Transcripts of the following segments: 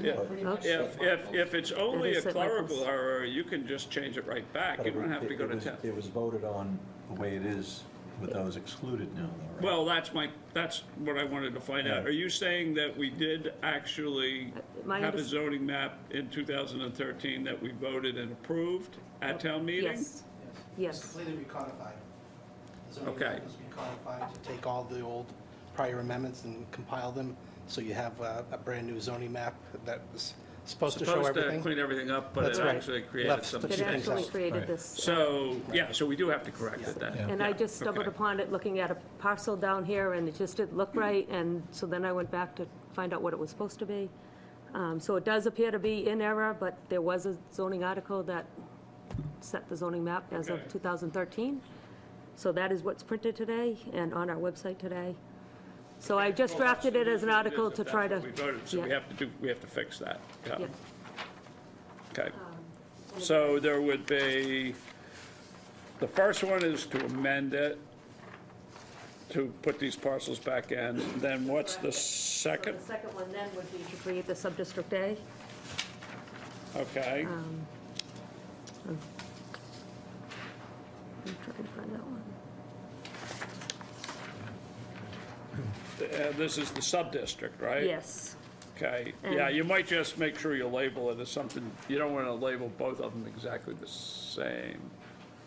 Yeah. Pretty much If, the- if, if it's only a is at Michael's. clerical error, you can just change it right back. But You it don't have to it go to was- town. It was voted on the way it is with those excluded now, though, right? Well, that's my, that's what I wanted to find out. Yeah. Are you saying that we did actually Uh, my have a unders- zoning map in 2013 that we voted and approved at town meeting? Yes, Yes. yes. It's completely recodified. The zoning Okay. map was recodified to take all the old prior amendments and compile them, so you have uh, a brand-new zoning map that was supposed to show Supposed to everything. clean everything up, but it That's right. actually created Left some. the It She thinks actually so. created Right. this, So, yeah, so we do have to correct it then. and I Yeah, just stumbled okay. upon it looking at a parcel down here, and it just didn't look right, and so then I went back to find out what it was supposed to be. Um, So it does appear to be in error, but there was a zoning article that set the zoning map as of Okay. 2013. So that is what's printed today and on our website today. So I just Well, that's drafted it the as an reason article is if to that's try to. what we voted, So we yeah, have uh, to do, we have to fix that. Yeah. yeah. Okay. So there would be, the first one is to amend it, to put these parcels back in. Then what's the So second? the second one then would be to create the sub-district A. Okay. Um. I'm trying to find that one. Uh, This is the sub-district, right? Yes, Okay. Yeah, And- you might just make sure you label it as something, you don't want to label both of them exactly the same,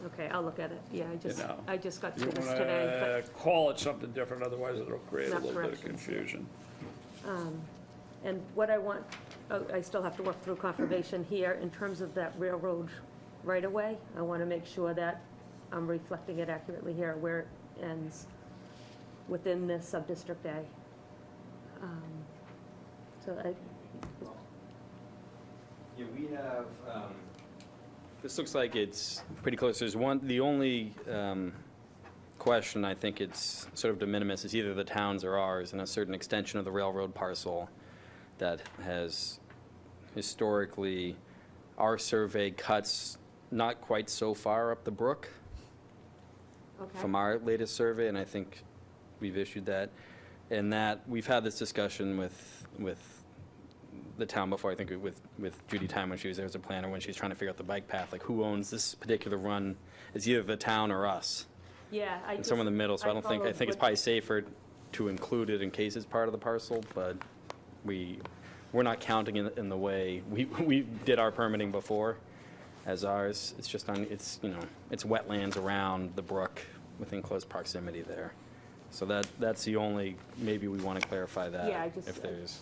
okay, I'll look at it, yeah, I you just, know? I just got You through want this today, to call it something different, otherwise it'll create a Map little bit of corrections, yeah. confusion. but, and what I want, oh, I still have to work through confirmation here, in terms of that railroad right-of-way, I want to make sure that I'm reflecting it accurately here, where it ends within this sub-district A. Um, So I, Yeah, we have, um, this looks like it's pretty close. There's one, the only um, question, I think it's sort of de minimis, is either the towns or ours, and a certain extension of the railroad parcel that has historically, our survey cuts not quite so far up the brook okay. from our latest survey, and I think we've issued that. And that, we've had this discussion with, with the town before, I think with, with Judy Time when she was there as a planner, when she was trying to figure out the bike path, like who owns this particular run? Is either the town or us, Yeah, I and just. somewhere in the middle, so I don't think, I followed think it's what- probably safer to include it in case it's part of the parcel, but we, we're not counting in, in the way, we, we did our permitting before as ours, it's just on, it's, you know, it's wetlands around the brook within close proximity there. So that, that's the only, maybe we want to clarify that. Yeah, I just- If there's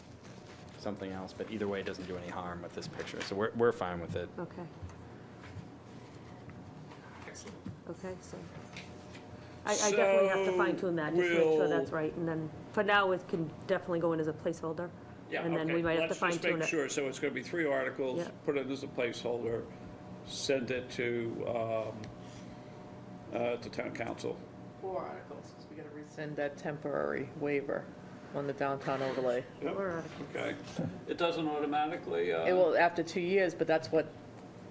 something else, but either way, it doesn't do any harm with this picture, so we're, we're fine with it. Okay. Okay, so, I, I definitely have to So fine tune that, just make sure that's we'll- right, and then, for now, it can definitely go in as a placeholder. Yeah, And then okay. we might have to fine Let's just tune make it. sure, so it's going to be three articles, Yeah. put it as a placeholder, send it to, um, uh, to town council. Four articles, because we got to rescind that temporary waiver on the downtown overlay. Or out of- Okay. It doesn't automatically, It uh, will, after two years, but that's what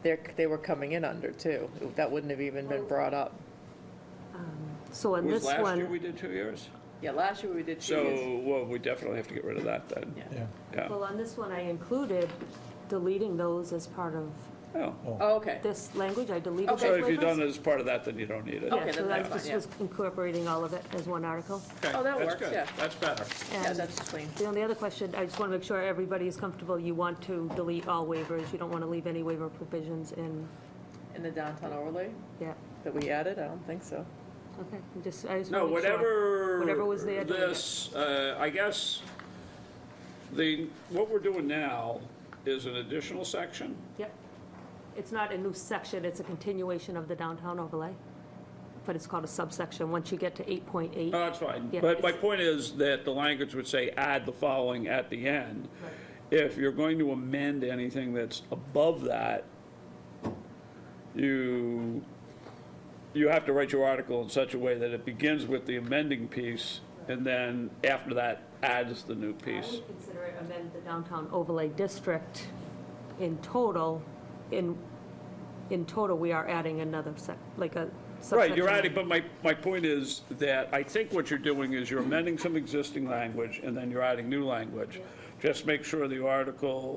they're, they were coming in under, too. That wouldn't have even been brought up. So on was this last year one, we did two years? Yeah, last year we did two years. So, well, we definitely have to get rid of that then. Yeah. Yeah. Yeah. well, on this one, I included deleting those as part of Oh. Oh, okay. this language, I deleted those Okay. So if you waivers. don't, as part of that, then you don't need it. Okay, Yeah, so then I that's fine, just yeah. was incorporating all of it as one article. Okay, Oh, that that's works, good. yeah. That's better. Yeah, And that's clean. The only other question, I just want to make sure everybody is comfortable, you want to delete all waivers, you don't want to leave any waiver provisions in, In the downtown overlay yeah, that we added? I don't think so. okay, I'm just, I just No, want to make sure. whatever. Whatever was there, delete it. This, uh, I guess, the, what we're doing now is an additional section. Yep. It's not a new section, it's a continuation of the downtown overlay, but it's called a subsection, once you get to 8.8. No, that's fine. Yeah, But my it's- point is that the language would say, add the following at the end. If you're going to amend anything that's above that, you, you have to write your article in such a way that it begins with the amending piece, and then after that adds the new I piece. would consider it amend the downtown overlay district in total, in, in total, we are adding another sec, like a subsection. Right, you're adding, but my, my point is that I think what you're doing is you're amending some existing language, and then you're adding new language. Just make sure the article